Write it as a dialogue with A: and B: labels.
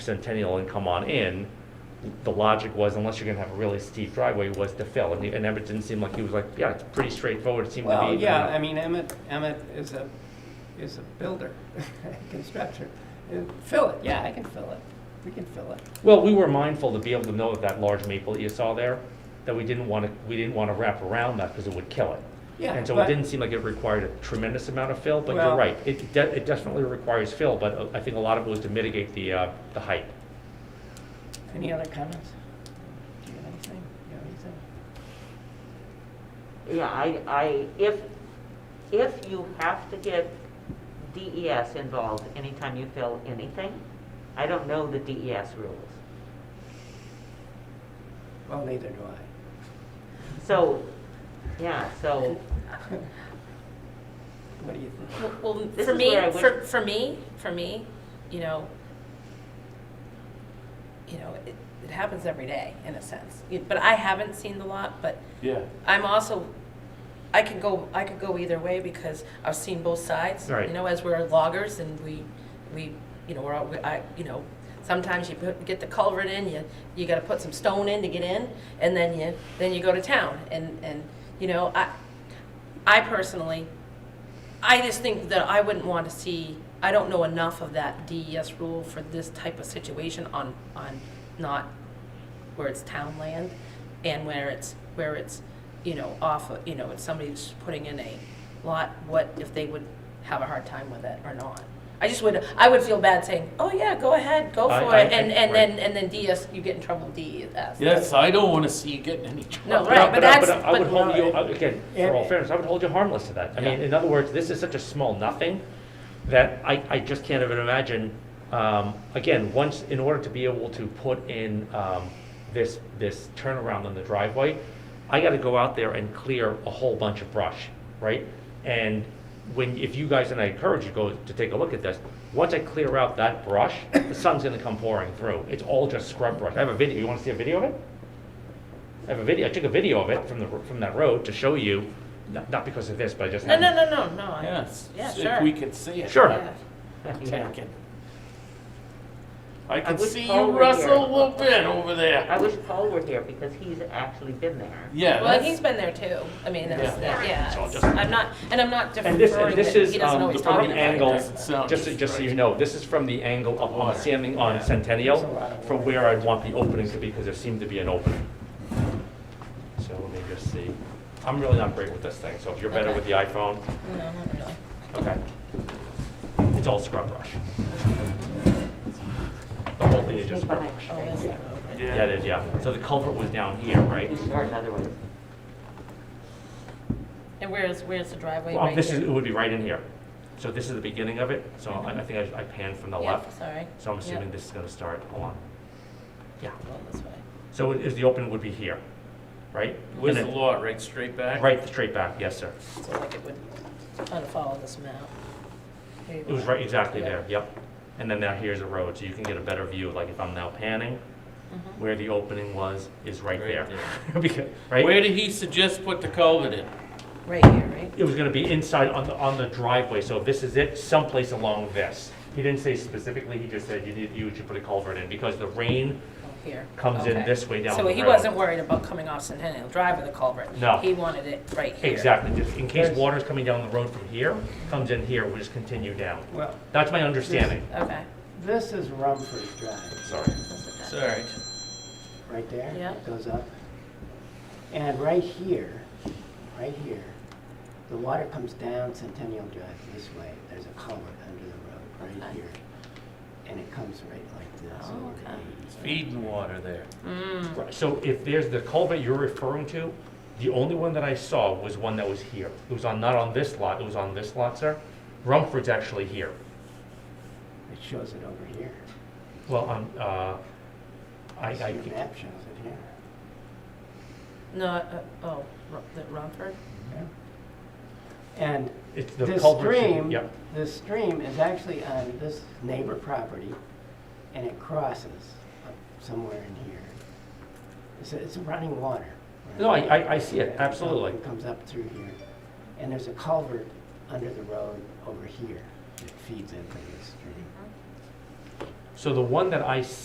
A: Centennial and come on in, the logic was unless you're gonna have a really steep driveway was to fill. And, he- and Emmett didn't seem like he was like, yeah, it's pretty straightforward. It seemed to be.
B: Well, yeah, I mean, Emmett, Emmett is a, is a builder, constructor. Uh, Fill it, yeah, I can fill it. We can fill it.
A: Well, we were mindful to be able to know that that large maple that you saw there, that we didn't wanna, we didn't wanna wrap around that because it would kill it.
B: Yeah,
A: And so it
B: but-
A: didn't seem like it required a tremendous amount of fill, but
B: Well-
A: you're right. It de- it definitely requires fill, but uh, I think a lot of it was to mitigate the, uh, the height.
B: Any other comments? Do you have anything? You have anything?
C: Yeah, I, I, if, if you have to get DES involved anytime you fill anything, I don't know the DES rules.
B: Well, neither do I.
C: So, yeah, so,
B: What do you think?
D: Well, Well,
C: This
D: for
C: is
D: me,
C: where I wish-
D: for, for me, for me, you know, you know, it, it happens every day in a sense. You- But I haven't seen the lot, but
E: Yeah,
D: I'm also, I could go, I could go either way because I've seen both sides.
A: Right.
D: You know, as we're loggers and we, we, you know, we're, all- we- I, you know, sometimes you put, get the culvert in, you, you gotta put some stone in to get in, and then you, then you go to town. And, and, you know, I, I personally, I just think that I wouldn't want to see, I don't know enough of that DES rule for this type of situation on, on not where it's town land and where it's, where it's, you know, off, of- you know, it's somebody's putting in a lot, what if they would have a hard time with it or not? I just would, I would feel bad saying, oh yeah, go ahead, go
A: I-
D: for
A: I-
D: it, and,
A: I-
D: and then,
A: right.
D: and then DES, you get in trouble with DES.
E: yes, I don't wanna see you getting any trouble.
D: No, right, but
A: I-
D: that's,
A: I would
D: but,
A: hold you, I- again, for all fairness, I would hold you harmless to that. I mean,
E: Yeah.
A: in other words, this is such a small nothing that I, I just can't even imagine. Um, again, once, in order to be able to put in, um, this, this turnaround on the driveway, I gotta go out there and clear a whole bunch of brush, right? And when, if you guys, and I encourage you to go to take a look at this, once I clear out that brush, the sun's gonna come pouring through. It's all just scrub brush. I have a video, you wanna see a video of it? I have a video, I took a video of it from the, from that road to show you, not, not because of this, but I just.
D: no, no, no, no, no. I-
E: Yes,
D: Yeah,
E: if
D: sure.
E: we could see it.
A: Sure.
D: Yeah.
E: I
C: yeah.
E: can- I can
C: wish
E: see
C: Paul
E: you
C: were
E: wrestle a
C: here.
E: little bit over
C: I
E: there.
C: wish Paul were here because he's actually been there.
E: Yeah,
D: Well,
E: that's-
D: he's been there too. I mean, that's,
E: Yeah.
D: that- yeah,
A: It's all
D: it's-
A: just-
D: I'm not, and I'm not
A: And this,
D: deferring
A: and this
D: that
A: is,
D: he doesn't know
A: um,
D: what
A: the
D: he's
A: front
D: talking
A: angle,
D: about.
E: Doesn't sound
A: just, so- just so you
E: right.
A: know, this is from the angle up on, standing on
B: There's a lot
A: Centennial,
B: of
A: from
B: water.
A: where I'd want the opening to be, because there seemed to be an opening. So let me just see. I'm really not great with this thing, so if you're better
D: Okay.
A: with the iPhone,
D: No, not really.
A: okay. It's all scrub brush. The whole thing is just scrub brush.
D: Oh, is it?
A: Yeah, it is, yeah. So the culvert was down here, right?
C: He's short in other ways.
D: And where's, where's the driveway
A: Well,
D: right
A: this is, it
D: here?
A: would be right in here. So this is the beginning of it, so I I think I I panned from the
D: Yeah,
A: left.
D: Sorry.
A: So I'm assuming
D: Yep.
A: this is gonna start along. Yeah,
D: Going this way.
A: so it is, the open would be here, right?
E: Where's the
A: And it-
E: lot, right straight back?
A: Right, straight back, yes, sir.
D: So like it would kind of follow this map. There you
A: It was
D: go.
A: right, exactly
D: Yeah.
A: there, yep. And then now here's a road, so you can get a better view, like if I'm now panning,
D: Mm-hmm.
A: where the opening was, is right there.
E: Right
A: Because-
E: Where
A: Right?
E: did he suggest put the culvert in?
D: Right here, right?
A: It was gonna be inside on the, on the driveway, so if this is it, someplace along this. He didn't say specifically, he just said you need, you should put a culvert in, because the rain
D: Oh, Here.
A: Comes in
D: Okay.
A: this way down
D: So
A: the
D: he
A: road.
D: wasn't worried about coming off Centennial Drive with a culvert.
A: No.
D: He wanted it right here.
A: Exactly, just in case water's coming down the road from here, comes in here, we just continue down.
B: Well,
A: That's my understanding.
D: Okay.
B: this is Rumford Drive,
A: Sorry.
D: That's okay.
E: It's all right.
B: right there.
D: Yeah.
B: Goes up. And right here, right here, the water comes down Centennial Drive this way. There's a culvert under the road, right
D: Okay.
B: here. And it comes right like this
D: Oh,
B: over
D: okay.
B: to
E: It's feeding water there.
D: Mm,
A: Right, So if there's the culvert you're referring to, the only one that I saw was one that was here. It was on, not on this lot, it was on this lot, sir. Rumford's actually here.
B: It shows it over here.
A: Well, on, uh, I, I,
B: Your map shows it here.
D: no, uh, oh, Ru- the Rumford?
B: And
A: it's the
B: this
A: culvert.
B: stream,
A: Yep,
B: this stream is actually on this neighbor property, and it crosses up somewhere in here. It's, it's running water. right?
A: No, I- I- I see it, absolutely.
B: It comes up through here, and there's a culvert under the road over here that feeds into this stream.
A: So the one that I